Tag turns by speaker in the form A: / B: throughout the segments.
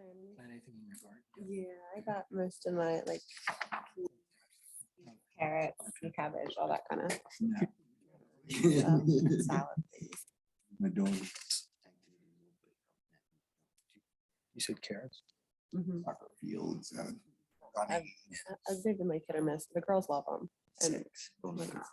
A: Um,
B: Plant anything in your garden?
A: Yeah, I got most of my like carrots and cabbage, all that kind of
C: My
A: salad things.
C: dog.
B: You said carrots?
A: Mhm.
C: Soccer fields. uh,
A: I've- I- I've Uh, been like hit or miss. The girls love them. And oh my God.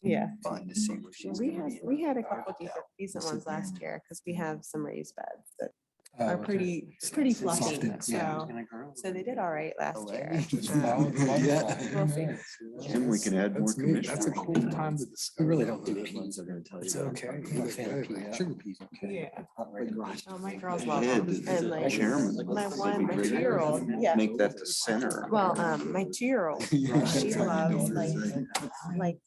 A: yeah,
C: Fun to see where she's.
A: we
C: gonna
A: had
C: be.
A: we had a
C: Uh,
A: couple decent, decent ones last year because we have some raised beds that are
B: okay.
A: pretty pretty
B: It's
A: fluffy.
B: softened, yeah.
A: So so they did all right last
C: way.
A: year.
C: Just
A: Um,
C: follow the
B: Yeah.
C: waterfall.
A: We'll see.
D: Jim, we can add more
C: That's neat. That's a
D: commissioners.
C: cool time to discover.
B: really don't do
C: that.
B: peas,
D: I'm gonna tell
B: It's okay. I'm a fan of pea- Sugar peas, okay.
A: Oh, my girls love
D: Ed,
A: them.
D: as
A: And
D: the
A: like
D: chairman.
A: my
D: it'd
A: one,
D: be
A: my
D: great to
A: two-year-old, yeah.
D: Make that the center.
A: Well, um, my two-year-old She loves, like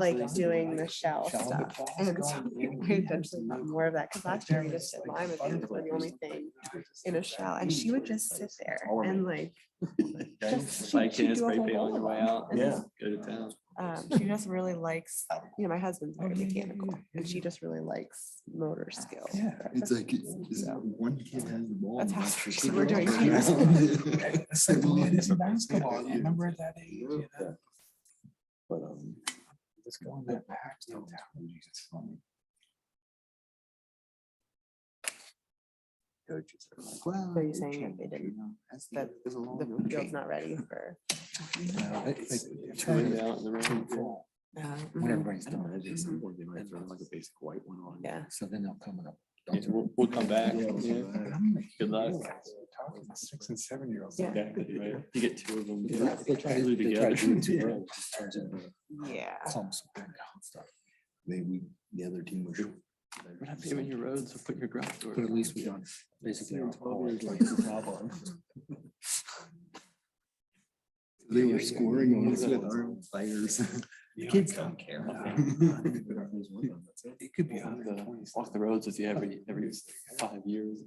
A: like doing the shell stuff. And so we eventually got more of that, because last year we just did lime and things were the only thing in a shell, and she would just sit there and like, just.
E: Buy
A: she- she'd
E: cans,
A: do a
E: spray
A: whole
E: paint on
A: bowl
E: your
A: of
E: way
A: them.
E: out. and
D: Yeah.
E: just Go to town.
A: Um, she just really likes, you know, my husband's very mechanical, and she just really likes motor skills.
C: Oh, Yeah, it's like, is that one kid has the ball?
A: That's
C: and
A: how
C: that's the
A: she-
C: kid
A: we're
C: that's
A: doing
C: playing.
B: It's like,
C: Well,
B: well,
C: yeah,
B: it's
C: yeah.
B: basketball.
C: Yeah.
B: You remember at that age? you know?
C: But, um,
B: Just go in
C: that
B: that pack.
C: still technology is funny. Coaches are like, well.
A: So you're
C: it
A: saying that they
C: changed, you
A: didn't-
C: know, that's
A: that
C: it was a long
A: The
C: road
A: field's
C: trip."
A: not ready for.
B: Uh, they- they
E: Turn
B: turn
E: it out in the
B: to
E: rain.
B: fall
A: uh,
B: When
A: mhm.
B: everybody's
D: I don't know,
B: done.
D: maybe at some point they might throw like a basic white one on.
A: Yeah,
B: So then they'll come and.
E: Yeah, We'll, we'll come back.
C: Yeah,
E: yeah.
C: so, uh, I'm like, you
E: Good luck.
C: realize we're Talking to six and seven year olds.
A: Yeah.
E: Exactly, right. You get two of them.
B: They they try to
E: Glue
B: they try to do it too
E: together.
B: early, it just turns into
A: yeah.
B: clumps of burnout and stuff.
C: They, we, the other team was.
E: We're not paving your roads, so put your garage door.
B: But at least we don't basically.
C: Same
B: our
C: 12
B: whole
C: years
B: life.
C: later. They were scoring on us with our own players. Kids don't care.
B: It could be
E: Walk
B: under
E: the-
B: twenty.
E: Walk the roads with you every, every five years.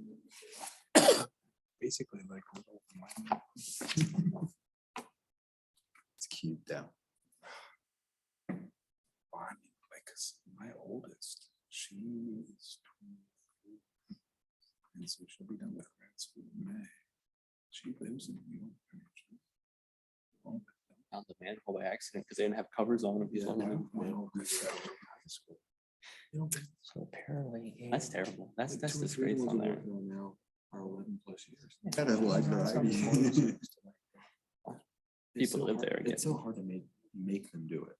B: Basically like. a little wine.
C: It's cute though.
B: Well, I mean, like, 'cause my oldest, she's.
C: And so she'll be done with grad school in May. She lives in New York. actually. Oh,
E: Found the manhole by accident because they didn't have covers on them.
C: no,
E: so-
C: no, that's out of high school. You know, but
B: So apparently.
E: That's
B: Amy-
E: terrible. That's,
C: the
E: that's
C: two or
E: the
C: three
E: disgrace
C: ones
E: on
C: we're
E: there.
C: working on now Are eleven plus years.
B: Yeah.
C: That is like variety.
D: It's so
E: People live
D: hard-
E: there again.
D: It's so hard to make, make them do it.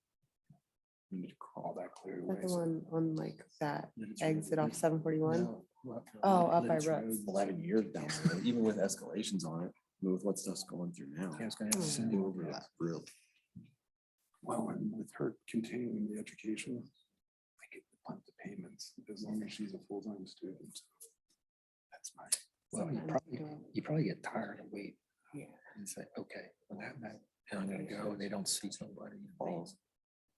D: We need to crawl back clear
A: Is that the
D: away.
A: one on like that
D: Lynch
A: exit
D: Road.
A: off seven forty-one?
D: No, up-
C: uh,
A: Oh, up by
D: Lynch Road,
A: Rooks.
D: Eleven years down, the road, even with escalations on it, with what stuff's going through now.
B: Yeah, I was gonna have
A: Oh.
B: to send you over that.
D: Real.
C: Well, and with her continuing the education, I get to punt the payments as long as she's a full-time student. That's my.
B: Well, you
A: Sometimes you
B: probably,
A: don't.
B: you probably get tired of waiting.
A: Yeah.
B: And say, okay, well, that, that, and I'm gonna go, and they don't see somebody. in
D: Falls.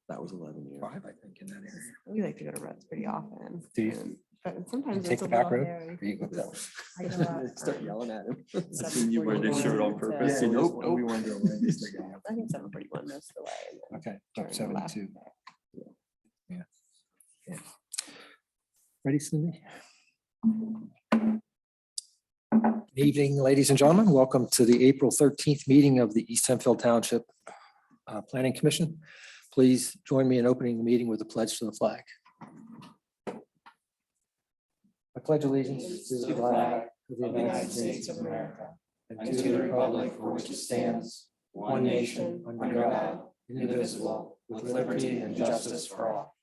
D: That was eleven years.
B: Five, I think, in that area.
A: We like to go to Reds pretty often.
B: Do you?
A: and- But sometimes
B: take
A: it's a
B: the back
A: little
B: road?
A: hairy.
B: There you go, that was-
A: I go up,
D: Start
A: um,
D: yelling at him.
E: That's when you wear the
A: 741
E: shirt on
A: to-
E: purpose.
D: Yeah,
E: and
D: nope,
E: just-
D: nope.
E: we weren't doing it. It's like,
A: I think seven forty-one most of the way. and then
B: Okay,
A: turn
B: top
A: left.
B: seventy-two. Yeah. Yeah. Ready, Cindy? Good Evening, ladies and gentlemen. Welcome to the April thirteenth meeting of the East Hemphill Township uh, Planning Commission. Please join me in opening the meeting with a pledge to the flag. I pledge allegiance to the flag of the United States of America and to the republic for which it stands, one nation, under God, indivisible, with liberty and justice for all.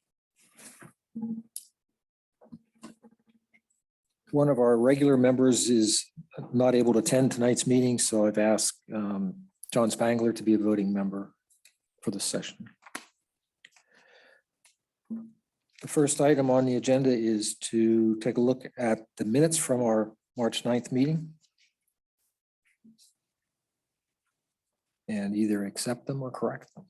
B: One of our regular members is not able to attend tonight's meeting, so I've asked um, John Spangler to be a voting member for this session. The first item on the agenda is to take a look at the minutes from our March 9th meeting and either accept them or correct them.